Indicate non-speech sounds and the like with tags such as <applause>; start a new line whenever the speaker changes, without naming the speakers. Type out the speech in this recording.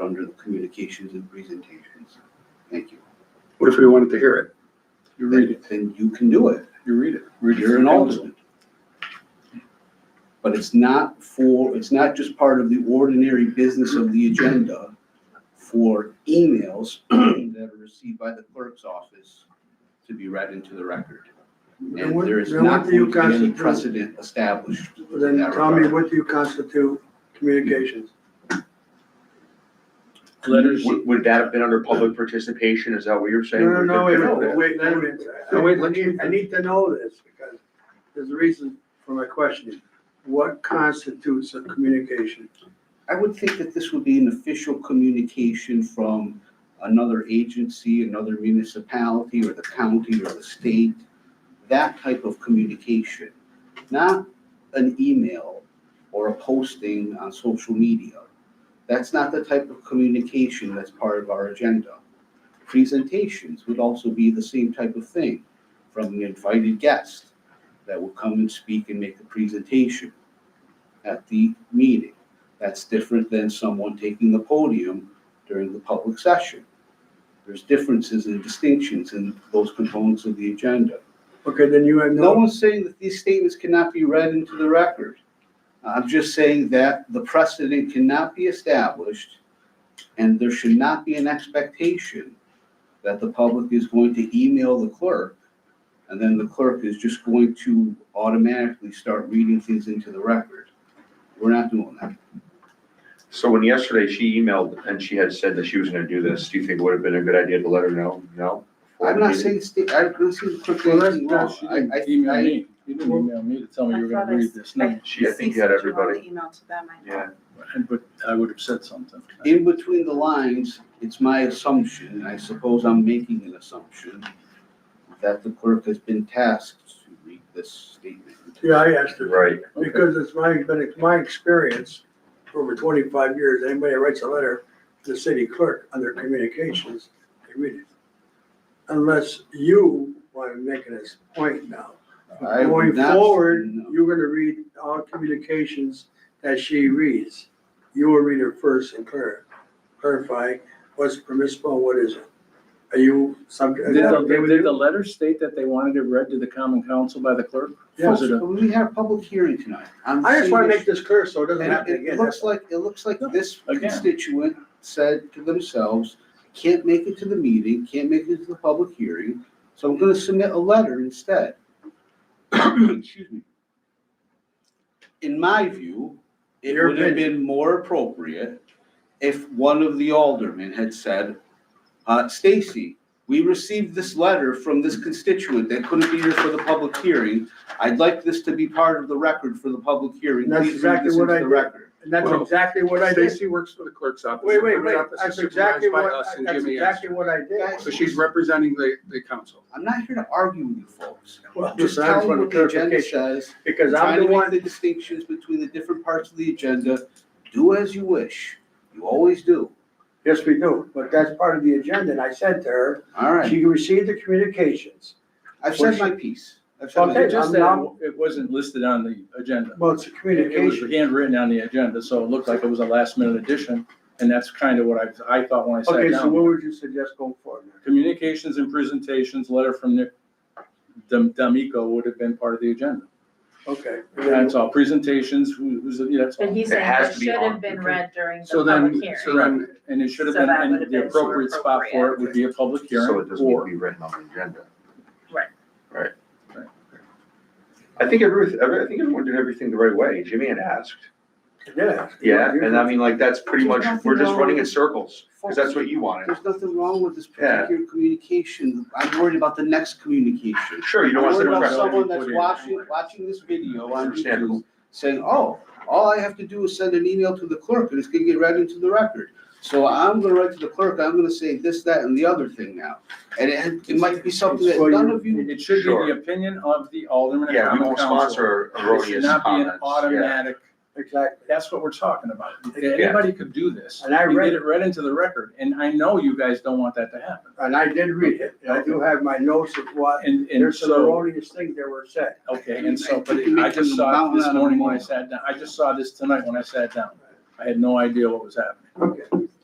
under the communications and presentations. Thank you.
What if we wanted to hear it? You read it,
And you can do it.
you read it. Read it
You're
for
an
council.
alternate. But it's not for, it's not just part of the ordinary business of the agenda for emails <clears throat> that are received by the clerk's office to be read into the record.
Then
And
what-
there is
then what
not
do you
going to be any
constitute-
precedent established. in
Then
that
tell me,
regard.
what do you constitute communications?
Letters, would would that have been under public participation? Is that what you're
No,
saying?
no, no, wait, a
Would
minute,
that-
wait, wait a minute.
No, wait,
I
let's-
need, I need to know this because there's a reason for my question. What constitutes a communication?
I would think that this would be an official communication from another agency, another municipality, or the county, or the state. That type of communication, not an email or a posting on social media. That's not the type of communication that's part of our agenda. Presentations would also be the same type of thing from an invited guest that will come and speak and make a presentation at the meeting. That's different than someone taking the podium during the public session. There's differences and distinctions in those components of the agenda.
Okay, then you have
No
no,
one's saying that these statements cannot be read into the record. I'm just saying that the precedent cannot be established, and there should not be an expectation that the public is going to email the clerk, and then the clerk is just going to automatically start reading things into the record. We're not doing that.
So when yesterday she emailed and she had said that she was gonna do this, do you think it would have been a good idea to let her know? No?
I'm not saying state, I'm not saying quick
Well, that's
anything
not-
wrong.
She
I,
didn't
I,
email
I-
me. You didn't email me to tell me you were gonna read this name,
She, I think, had everybody.
Email to them, I
Yeah.
know.
but I would have said something.
in between the lines, it's my assumption, and I suppose I'm making an assumption, that the clerk has been tasked to read this statement.
yeah, I asked her.
Right.
Okay.
Because it's my, but it's my experience for over twenty-five years, anybody that writes a letter to the city clerk under communications, they read it. Unless you want to make it as a point now.
I would
Going
not-
forward,
no.
you're gonna read all communications that she reads. You will read her first and clar- clarify what's permissible, and what isn't. Are you subject?
Did the, did the letter state that they wanted it read to the common council by the clerk? Was it a-
Folks, We had a public hearing tonight. I'm
I just wanna
serious.
make this clear so it doesn't
And
happen
it
again.
looks like, it looks like this
Again.
constituent said to themselves, can't make it to the meeting, can't make it to the public hearing, so I'm gonna submit a letter instead. <coughs> Excuse me. In my view, it
Your
would have been more appropriate if one of the aldermen had said, uh, Stacy, we received this letter from this constituent that couldn't be here for the public hearing. I'd like this to be part of the record for the public hearing.
That's
Please read
exactly
this
what
into
I
the
did.
record.
And that's
Well,
exactly what I did.
Stacy works for the clerk's office.
Wait, wait,
The
wait,
clerk's office
that's
is
exactly
supervised by
what,
us and
that's
Jimmy
exactly what I
is.
did.
So she's representing the, the council.
I'm not here to argue with you folks.
Well,
Just
I just
tell me
want
what the agenda
clarification,
says.
Because
Try
I'm
to
the
make
one,
The distinctions between the different parts of the agenda. Do as you wish. You always do.
yes, we do, but that's part of the agenda, and I said to her,
All right.
she received the communications.
I've said my piece. I've said my
Okay,
They
piece.
just
I'm
said
not-
it wasn't listed on the agenda.
Well, it's a
It was
communication.
handwritten on the agenda, so it looked like it was a last minute addition, and that's kind of what I, I thought when I sat
Okay, so
down.
what would you suggest going forward?
Communications and presentations, letter from Nick Dam- D'Amico would have been part of the agenda.
Okay.
That's all, presentations, who, who's, yeah, that's
But
all.
he's
It
saying
has
it
to be
should
on.
have been read during the
So then-
public hearing.
so then-
And it should have
So
been,
that would
and
have
the
been
appropriate spot for it would be a public
So
hearing
it doesn't need to
or
be written on the agenda.
Right.
Right.
Right.
I think every, every- I think everyone did everything the right way. Jimmy had asked.
Yeah.
Yeah, and I mean, like, that's pretty much,
There's nothing
we're just
wrong
running in
with-
circles, because that's what you wanted.
There's nothing wrong with this
Yeah.
particular communication. I'm worried about the next communication.
Sure, you don't want to
I'm worried
sit in
about
front of
someone
me.
that's watching, watching this video on YouTube
Understandable.
saying, oh, all I have to do is send an email to the clerk and it's gonna get read into the record. So I'm gonna write to the clerk, I'm gonna say this, that, and the other thing now. And it, it might be something that
Well, you-
none of you,
it should be
Sure.
the opinion of the alderman and
Yeah, we
common
won't
council.
sponsor
It should
erroneous
not be an
comments. Yeah.
automatic
Exactly.
That's what we're talking about. Anybody could do this.
And I
You
read-
Get it read into the record, and I know you guys don't want that to happen.
And I did read it, and I do have my notes of what,
And, and
there's some
so,
erroneous things that were said.
okay, and so, but
I think
I just
you're
saw
making
it
a mountain
this
out of
morning when I
molehill.
sat down, I just saw this tonight when I sat down. I had no idea what was happening.
Okay,